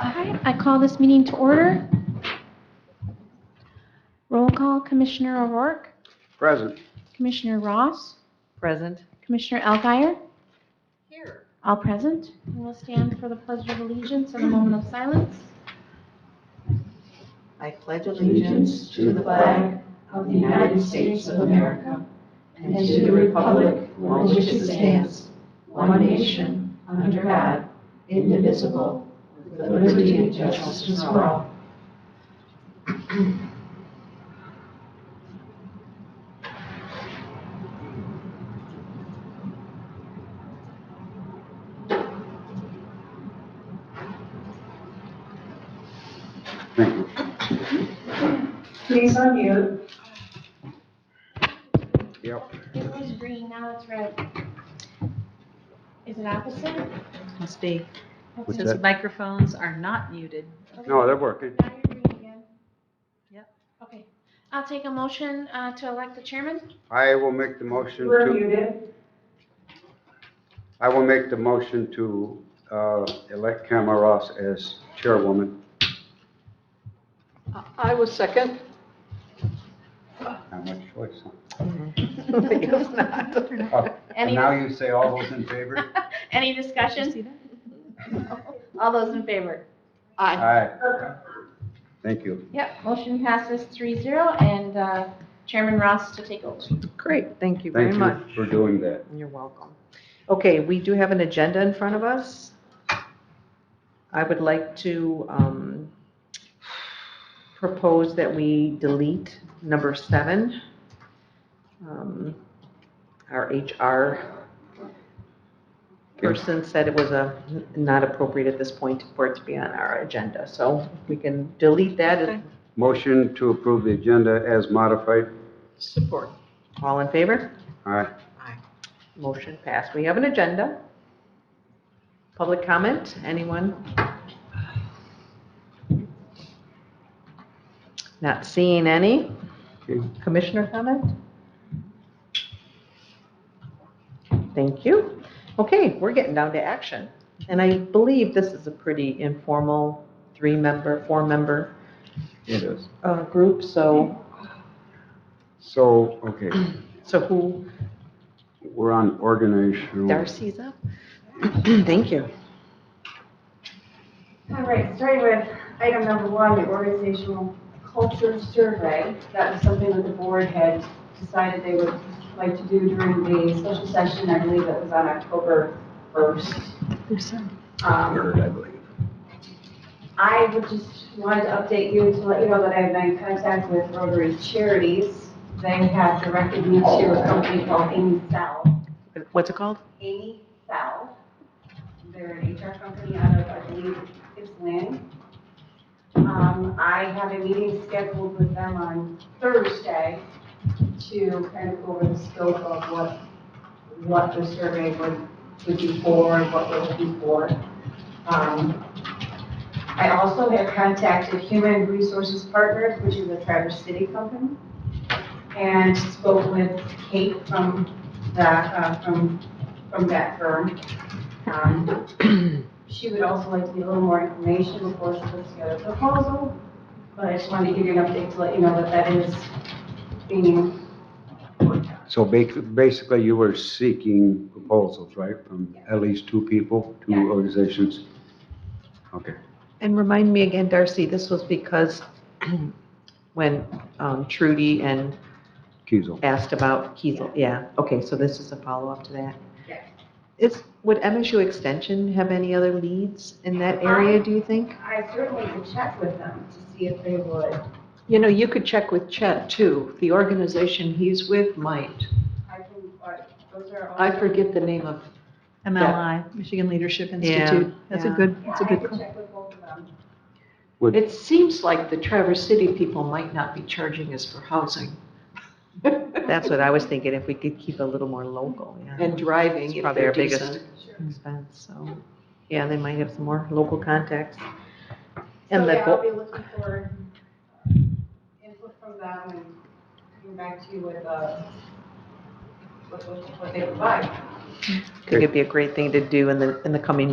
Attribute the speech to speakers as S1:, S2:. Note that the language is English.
S1: All right, I call this meeting to order. Roll call, Commissioner O'Rourke,
S2: Present.
S1: Commissioner Ross,
S3: Present.
S1: Commissioner Alguier,
S3: Here.
S1: all present. We'll stand for the pledge of allegiance and a moment of silence.
S3: I pledge allegiance to the flag of the United States of America and to the republic for which it stands, one nation, under God, indivisible, with liberty and justice for all.
S2: Thank you.
S4: Please unmute.
S2: Yep.
S1: It was green, now it's red. Is it opposite?
S3: Must be,
S2: What's
S1: Okay.
S2: that?
S3: since microphones are not muted.
S2: No, they're working.
S1: Now you're green again.
S3: Yep.
S1: Okay. I'll take a motion uh, to elect the chairman.
S2: I will make the motion
S4: We're
S2: to,
S4: muted.
S2: I will make the motion to uh, elect Kamala Ross as chairwoman.
S5: I was second.
S2: Not much choice, huh?
S3: Mm-hmm.
S5: It's not.
S2: Oh, And
S1: Any,
S2: now you say all those in favor?
S1: any discussion? All those in favor?
S5: Aye.
S2: Aye. Thank you.
S1: Yep, motion passes three zero, and uh, Chairman Ross to take over.
S3: Great, thank you very
S2: Thank
S3: much.
S2: you for doing that.
S3: You're welcome. Okay, we do have an agenda in front of us. I would like to um, propose that we delete number seven, um, our HR person said it was a, not appropriate at this point for it to be on our agenda, so we can delete that.
S2: Motion to approve the agenda as modified.
S5: Support.
S3: All in favor?
S2: Aye.
S3: Motion passed. We have an agenda. Public comment, anyone? Not seeing any.
S2: Okay.
S3: Commissioner comment? Thank you. Okay, we're getting down to action. And I believe this is a pretty informal, three-member, four-member
S2: It is.
S3: uh, group, so,
S2: So, okay,
S3: so who,
S2: we're on organizational.
S3: Darcy's up? Thank you.
S4: All right, starting with item number one, the organizational culture survey. That was something that the board had decided they would like to do during the special session. I believe that was on October 1st. Um,
S2: Third, I believe.
S4: I would just wanted to update you to let you know that I've been in contact with Rotary Charities. They have directed me to a company called Amy South.
S3: What's it called?
S4: Amy South. They're an HR company out of, I believe, it's Lynn. Um, I have a meeting scheduled with them on Thursday to kind of go over the scope of what, what the survey would, would be for and what we're looking for. Um, I also have contacted Human Resources Partners, which is a Traverse City company, and spoke with Kate from the, uh, from from that firm. Um, She would also like to get a little more information before she puts together a proposal, but I just wanted to give you an update to let you know that that is being worked on.
S2: So ba- basically, you were seeking proposals, right, from at least two people,
S4: Yeah.
S2: two organizations? Okay.
S3: And remind me again, Darcy, this was because when um, Trudy and
S2: Kiesel.
S3: asked about Kiesel, yeah, okay, so this is a follow-up to that.
S4: Yeah.
S3: Is, would MSU Extension have any other leads in
S5: Um,
S3: that area, do you think?
S4: I certainly could check with them to see if they would.
S5: You know, you could check with Chet too. The organization he's with might.
S4: I can, uh, those are all.
S5: I forget the name of,
S6: MLI, Michigan Leadership Institute. That's a
S3: yeah.
S6: good,
S4: Yeah,
S6: that's
S4: I
S6: a good
S4: could
S6: call.
S4: check with both of them.
S2: Would,
S5: it seems like the Traverse City people might not be charging us for housing
S3: That's what I was thinking, if we could keep a little more local, yeah.
S5: and driving
S3: It's
S5: if
S3: probably
S5: they're
S3: our biggest-
S5: decent.
S4: Sure.
S3: Expense, So, yeah, they might have some more local contacts. And
S4: So,
S3: the
S4: yeah, I'll
S3: goal,
S4: be looking for uh, input from them and coming back to you with, uh, with what they provide.
S3: I think it'd be a great thing to do in the, in the coming